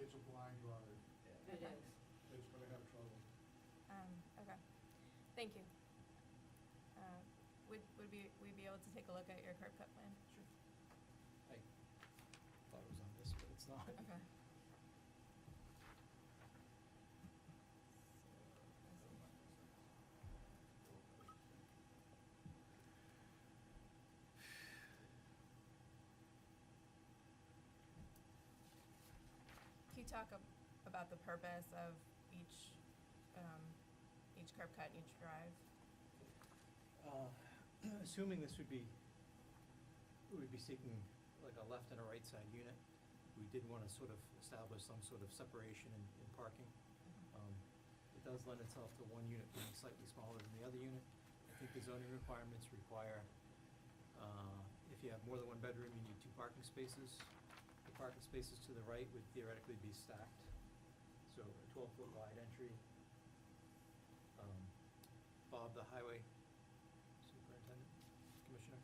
it's a blind yard, It Okay. is. it's gonna have trouble. Um, okay, thank you. Uh, Would, would we, we be able to take a look at your curb cut plan? Sure. I thought it was on this, but it's not. Okay. Can you talk ab- about the purpose of each, um, each curb cut and each drive? Uh, Assuming this would be, we'd be seeking like a left and a right side unit, we did want to sort of establish some sort of separation in, in parking. Um, It does lend itself to one unit being slightly smaller than the other unit. I think the zoning requirements require, uh, if you have more than one bedroom, you need two parking spaces. The parking spaces to the right would theoretically be stacked, so a twelve-foot wide entry. Um, Bob, the highway superintendent, commissioner,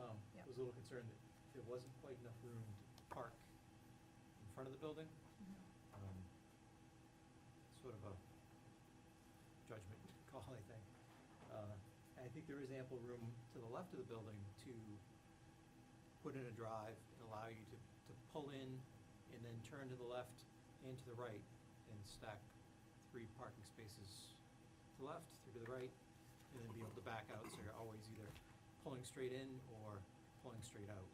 um, Yep. was a little concerned that there wasn't quite enough room to park in front of the building. Um, Sort of a judgment call, I think. Uh, I think there is ample room to the left of the building to put in a drive and allow you to, to pull in and then turn to the left and to the right and stack three parking spaces to the left, three to the right, and then be able to back out, so you're always either pulling straight in or pulling straight out.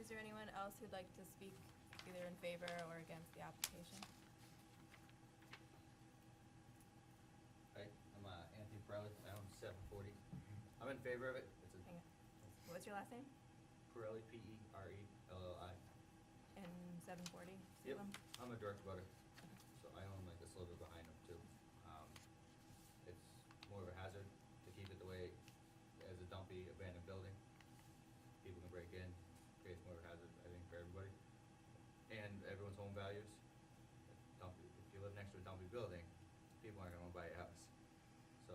Is there anyone else who'd like to speak either in favor or against the application? Hi, I'm uh, Anthony Perrelli, I own seven forty. I'm in favor of it. It's Hang on. a What's your last name? Pirelli, P E R E L L I. And seven forty Yep, Salem? I'm a direct butter, so I own like a little bit behind them too. Um, It's more of a hazard to keep it the way, as a dumpy abandoned building. People can break in, creates more of a hazard, I think, for everybody. And everyone's home values. Dumpy, if you live next to a dumpy building, people aren't gonna wanna buy your house. So,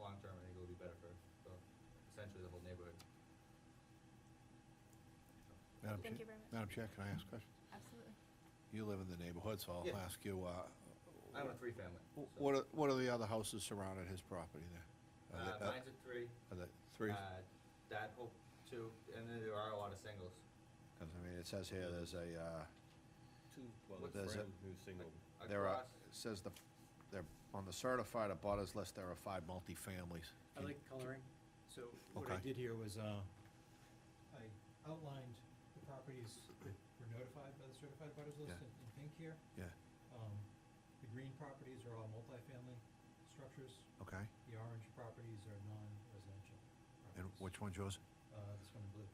long term, I think it'll be better for, for essentially the whole neighborhood. Madam Thank you Chair- very much. Madam Chair, can I ask questions? Absolutely. You live in the neighborhood, so I'll Yeah. ask you, uh, I own a three family. so- what are, what are the other houses surrounding his property there? Are Uh, they- uh, mine's a three. Are they three? Uh, That, oh, two, and then there are a lot of singles. Because, I mean, it says here, there's a, uh, Two, well, What's there's a that? new single. there Across- are, it says the, they're, on the certified abutters list, there are five multifamilies. I like coloring, so what I Okay. did here was, uh, I outlined the properties that were notified by the certified butters list Yeah. in in pink here. Yeah, Um, The green properties are all multifamily structures, okay. the orange properties are non-residential And properties. which one's yours? Uh, this one in blue.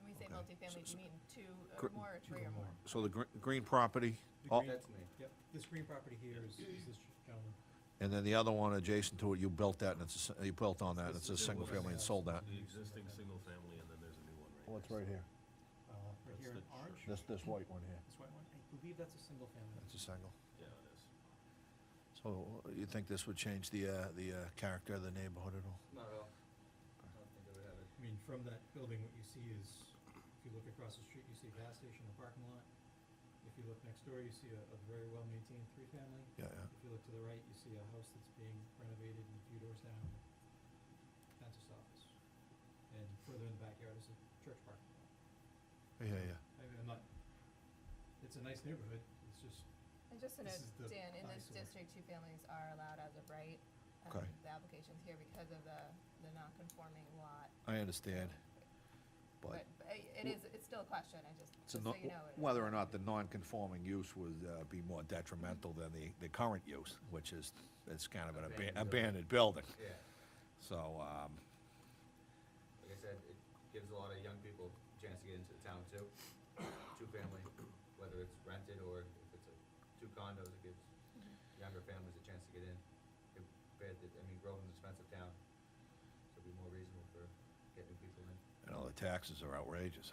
When we say Okay. multifamily, do So- you mean two Gr- or more, or two three or or more? more. So the gr- green property, The oh, green- That's me. Yep, this green property here is is this gentleman. and then the other one adjacent to it, you built that, and it's, a s- you built on that, and This it's a is the single one- family and sold that. The existing single family, and then there's a new one Oh, right What's next right to it. here? Uh, Right That's here in the orange, This, this white one here. this white one, I believe that's a single family. That's a single. Yeah, it is. So you think this would change the, uh, the uh, character of the neighborhood at all? Not at all. I don't think I would have it. I mean, from that building, what you see is, if you look across the street, you see a gas station, a parking lot. If you look next door, you see a, a very well-maintained three-family. Yeah, yeah. If you look to the right, you see a house that's being renovated and a few doors down, dentist office. And further in the backyard is a church parking lot. Yeah, yeah. I mean, I'm not, it's a nice neighborhood, it's just, And just to This is the note, Dan, in this eyesore. district, two families are allowed as of right. Um, Okay. The application's here because of the, the non-conforming lot. I understand, But but but it is, it's still a question, I just, it's just a so no- you know. it is. whether or not the non-conforming use would uh, be more detrimental than the, the current use, which is, it's kind of an aban- Abandoned building. abandoned building. Yeah, So, um, like I said, it gives a lot of young people a chance to get into the town too. Two family, whether it's rented or if it's a, two condos, it gives younger families a chance to get in. Compared to, I mean, Groveland's an expensive town, so it'd be more reasonable for getting people in. you know, the taxes are outrageous